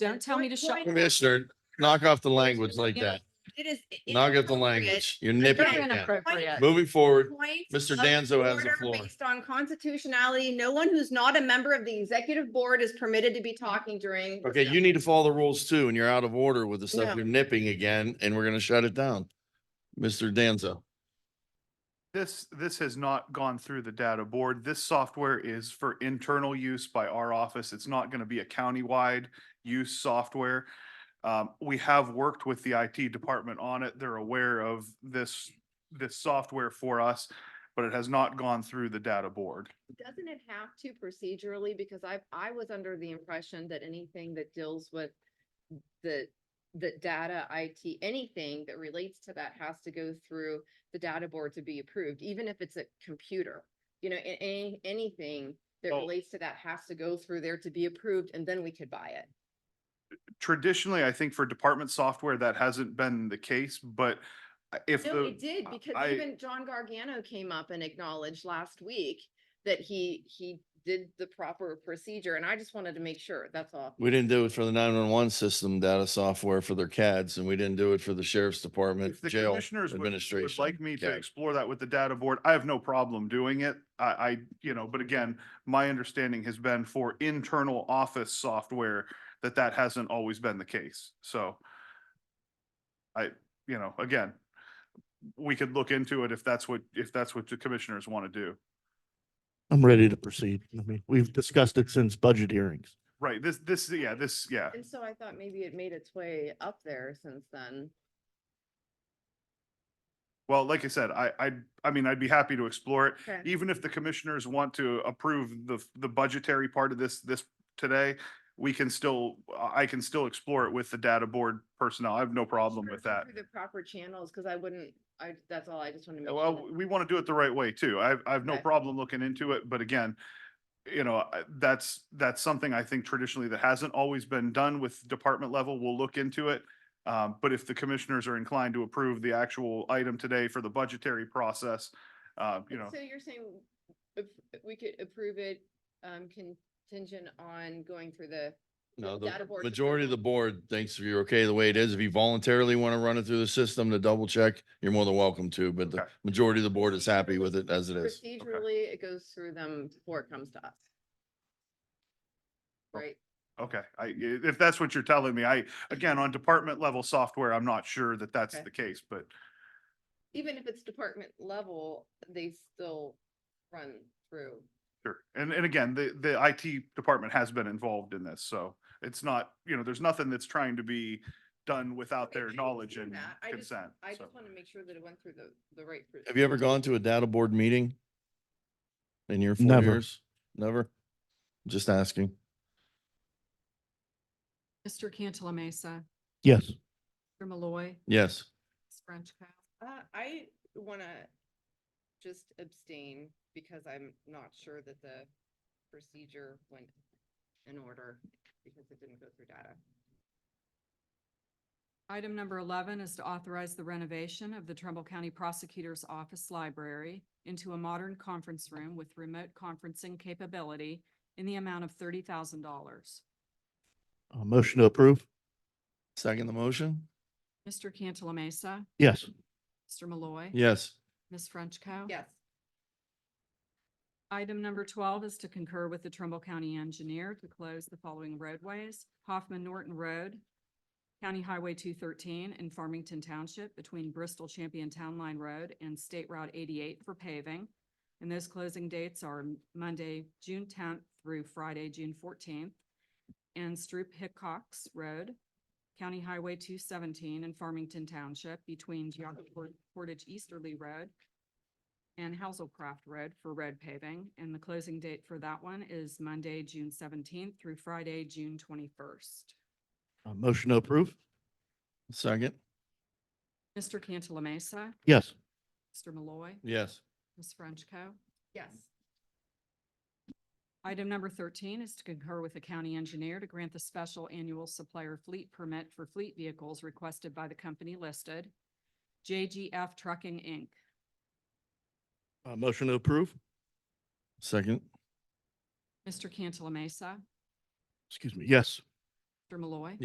Don't tell me to shut. Point- Commissioner, knock off the language like that. It is. it- it's Knock off the inappropriate. language. You're nipping Very it down. Inappropriate. Moving forward, Point Mr. of Danzo has the order floor. Based on constitutionality, no one who's not a member of the executive board is permitted to be talking during. Okay, you need to follow the rules too, and you're out of order with the No. stuff. You're nipping again, and we're gonna shut it down. Mr. Danzo, This, this has not gone through the data board. This software is for internal use by our office. It's not going to be a countywide use software. Um, we have worked with the IT department on it. They're aware of this, this software for us, but it has not gone through the data board. Doesn't it have to procedurally? Because I, I was under the impression that anything that deals with the, the data IT, anything that relates to that has to go through the data board to be approved, even if it's a computer. You know, a- any, anything that Oh. relates to that has to go through there to be approved and then we could buy it. Traditionally, I think for department software, that hasn't been the case, but if No, we the, did, I- because I- even John Gargano came up and acknowledged last week that he, he did the proper procedure, and I just wanted to make sure, that's all. we didn't do it for the nine-one-one system data software for their CADs, and we didn't do it for the sheriff's department, if the jail commissioners would- administration. would like me to CAD. explore that with the data board, I have no problem doing it. I, I, you know, but again, my understanding has been for internal office software that that hasn't always been the case. So I, you know, again, we could look into it if that's what, if that's what the commissioners want to do. I'm ready to proceed. I mean, we've discussed it since budget hearings. Right, this, this, yeah, this, yeah. And so I thought maybe it made its way up there since then. Well, like I said, I, I, I mean, I'd be happy to explore it. Okay. even if the commissioners want to approve the, the budgetary part of this, this today, we can still, I can still explore it with the data board personnel. I have no problem Sure, with go that. through The proper channels, because I wouldn't, I, that's all, I just want to make Yeah, sure. Uh, Well, that- we want to do it the right way too. I have, I have no Okay. problem looking into it, but again, you know, I- that's, that's something I think traditionally that hasn't always been done with department level. We'll look into it. Um, but if the commissioners are inclined to approve the actual item today for the budgetary process, uh, you know. So you're saying if we could approve it, um, contingent on going through the, No, the data board's majority of the approval. board thinks if you're okay the way it is, if you voluntarily want to run it through the system to double check, you're more than welcome to, but the Okay. majority of the board is happy with it as it is. procedurally, it goes through them before it comes to us. Oh. Right? Okay, I, i- if that's what you're telling me, I, again, on department level software, I'm not sure that that's Okay. the case, but even if it's department level, they still run through. sure. And, and again, the, the IT department has been involved in this, so it's not, you know, there's nothing that's trying to be done without Okay, I their knowledge understand and that. I just- consent. I so. just want to make sure that it went through the, the right. pr- Have you ever gone to a data board meeting? In your four Never. years? Never? Just asking. Mr. Cantala Mesa, Yes, Mr. Malloy, Yes. Ms. Frenchco. Uh, I want to just abstain because I'm not sure that the procedure went in order because it didn't go through data. Item number eleven is to authorize the renovation of the Trumbull County Prosecutor's Office Library into a modern conference room with remote conferencing capability in the amount of thirty thousand dollars. a Uh, motion to approve. Second the motion? Mr. Cantala Mesa, Yes, Mr. Malloy. Yes. Ms. Frenchco. Yes, Item number twelve is to concur with the Trumbull County Engineer to close the following roadways. Hoffman Norton Road, County Highway two thirteen in Farmington Township between Bristol Champion Town Line Road and State Route eighty-eight for paving. And those closing dates are Monday, June tenth through Friday, June fourteenth. And Stroop Hickox Road, County Highway two seventeen in Farmington Township between Geogu Port- Portage Easterly Road and Hazelcraft Road for road paving, and the closing date for that one is Monday, June seventeenth through Friday, June twenty-first. a Uh, motion to approve. Second? Mr. Cantala Mesa, Yes, Mr. Malloy, Yes. Ms. Frenchco. yes. Item number thirteen is to concur with the county engineer to grant the special annual supplier fleet permit for fleet vehicles requested by the company listed, JGF Trucking, Inc. a Uh, motion to approve. Second? Mr. Cantala Mesa, Excuse me, yes. Mr. Malloy.